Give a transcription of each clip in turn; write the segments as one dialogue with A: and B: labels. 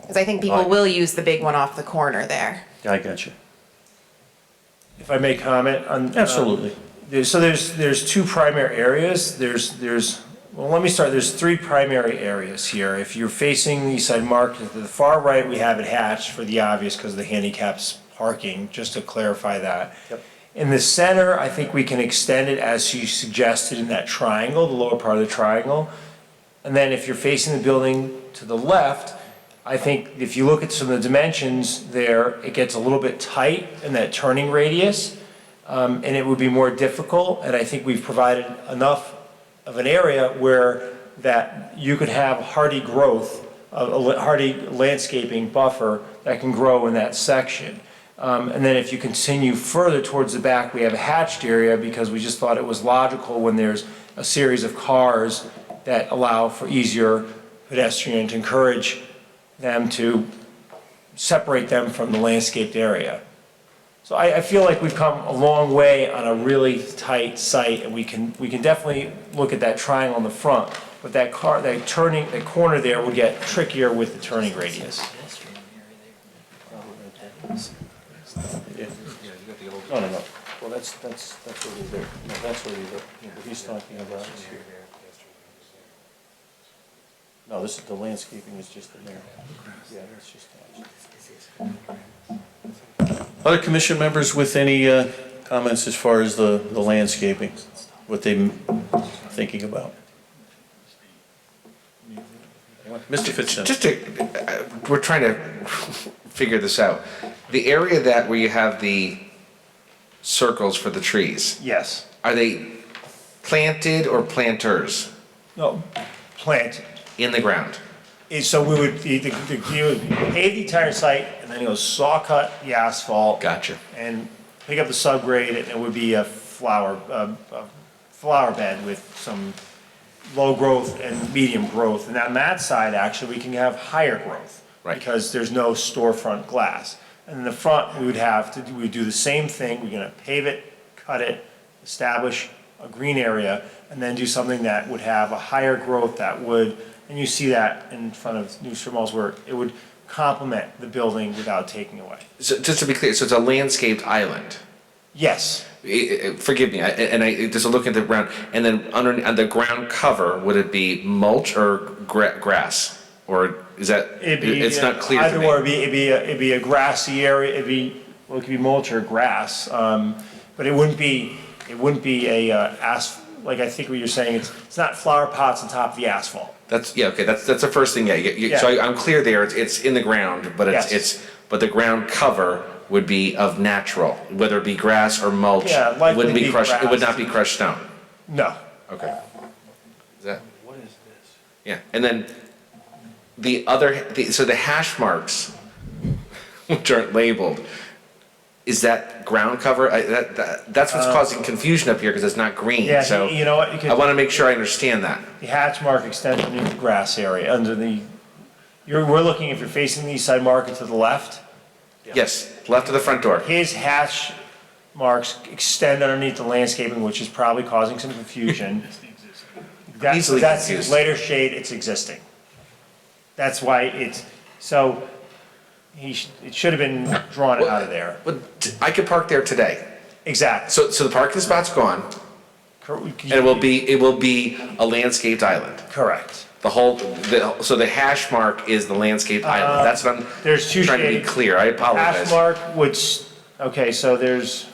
A: Because I think people
B: Right.
A: will use the big one off the corner there.
B: I got you.
C: If I may comment on. um,
B: Absolutely.
C: There's, so there's, there's two primary areas. There's, there's, well, let me start. There's three primary areas here. If you're facing the East Side Market, to the far right, we have it hatched for the obvious because of the handicaps parking, just to clarify that.
B: Yep.
C: In the center, I think we can extend it as you suggested in that triangle, the lower part of the triangle. And then if you're facing the building to the left, I think if you look at some of the dimensions there, it gets a little bit tight in that turning radius. Um, and it would be more difficult, and I think we've provided enough of an area where that you could have hardy growth, a a la- hardy landscaping buffer that can grow in that section. Um, And then if you continue further towards the back, we have a hatched area because we just thought it was logical when there's a series of cars that allow for easier pedestrian to encourage them to separate them from the landscaped area. So I, I feel like we've come a long way on a really tight site, and we can, we can definitely look at that triangle in the front, but that car, that turning, that corner there would get trickier with the turning radius.
B: No, no, no. Well, that's, that's, that's what he's there. No, that's what he's there. No, What he's talking about is here. No, this, the landscaping is just in there. Yeah, it's just. Other commission members with any uh, comments as far as the, the landscaping, what they thinking about? Mr. Fitzsimmons?
D: Just to, uh, we're trying to figure this out. The area that where you have the circles for the trees,
C: Yes.
D: are they planted or planters
C: No, plant,
D: in the ground?
C: And so we would, the, the, the- you would pave the entire site, and then you'll saw cut the asphalt.
D: Gotcha.
C: And pick up the subgrade, and it would be a flower, a, a flower bed with some low growth and medium growth. And on that side, actually, we can have higher growth.
D: Right.
C: Because there's no storefront glass. And in the front, we would have to, do- we would do the same thing, we're gonna pave it, cut it, establish a green area, and then do something that would have a higher growth that would, and you see that in front of New Street Mall's work, it would complement the building without taking away.
D: So just to be clear, so it's a landscaped island.
C: Yes,
D: I- I- Forgive me, I- and I, just looking at the ground, and then under, on the ground cover, would it be mulch or gra- grass? Or is that,
C: it'd be. uh,
D: it's not clear to
C: Either
D: me.
C: or, it'd be, it'd be, a- it'd be a grassy area, it'd be, well, it could be mulch or grass, um, but it wouldn't be, it wouldn't be a, uh, as, like I think what you're saying, it's, it's not flower pots on top of the asphalt.
D: That's, yeah, okay, that's, that's the first thing, yeah, you- you- so
C: Yeah.
D: I- I'm clear there, it's, it's in the ground, but
C: Yes.
D: it's, it's, but the ground cover would be of natural, whether it be grass or mulch.
C: Yeah,
D: it
C: likely
D: wouldn't
C: be
D: crushed. It would
C: grass.
D: not be crushed stone,
C: No.
D: okay. Is that,
B: What is this?
D: yeah, and then the other, the- so the hash marks, which aren't labeled, is that ground cover? I, that, that, that's what's causing confusion up here, because it's not green,
C: Uh, Yeah,
D: so.
C: you know what, you could-
D: I want to make sure I understand that.
C: The hatch mark extends into the grass area under the, you're, we're looking, if you're facing the east side market to the left,
D: Yes, left of the front door.
C: his hatch marks extend underneath the landscaping, which is probably causing some confusion. That's,
D: Easily
C: that's
D: confused.
C: later shade, it's existing. That's why it's, so he, sh- it should have been drawn out of there.
D: But t- I could park there today.
C: Exact.
D: So, so the parking spot's gone,
C: Cor-
D: and it will be, it will be a landscaped island.
C: Correct.
D: The whole, the, so the hash mark is the landscaped island. That's what I'm
C: Uh, There's two
D: trying to be
C: shades.
D: clear. I
C: Hash
D: apologize.
C: mark, which, okay, so there's,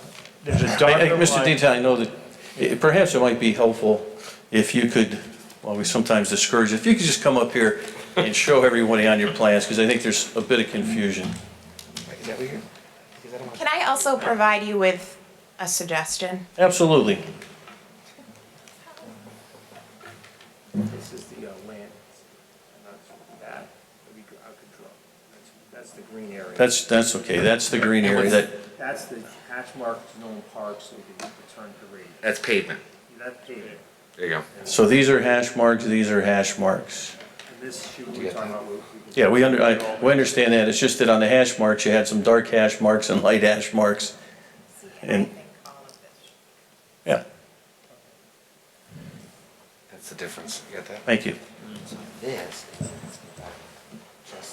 C: there's a
B: I- I-
C: darker
B: Mr.
C: line.
B: Deaton, I know that, eh, perhaps it might be helpful if you could, well, we sometimes discourage, if you could just come up here and show everybody on your plans, because I think there's a bit of confusion.
A: Can I also provide you with a suggestion?
B: Absolutely.
C: This is the uh, land, and that's that, would be, I could draw, that's, that's the green area.
B: That's, that's okay. That's the green area that,
C: That's the hatch mark to Nolan Park, so we can return to radius.
D: That's pavement.
C: That pavement,
D: There you go.
B: so these are hash marks, these are hash marks.
C: and this shoot we're talking about. we- we-
B: Yeah, we under, I, we understand that. It's just that on the hash marks, you had some dark hash marks and light hash marks. And, yeah,
D: That's the difference. You got that?
B: thank you.
E: This is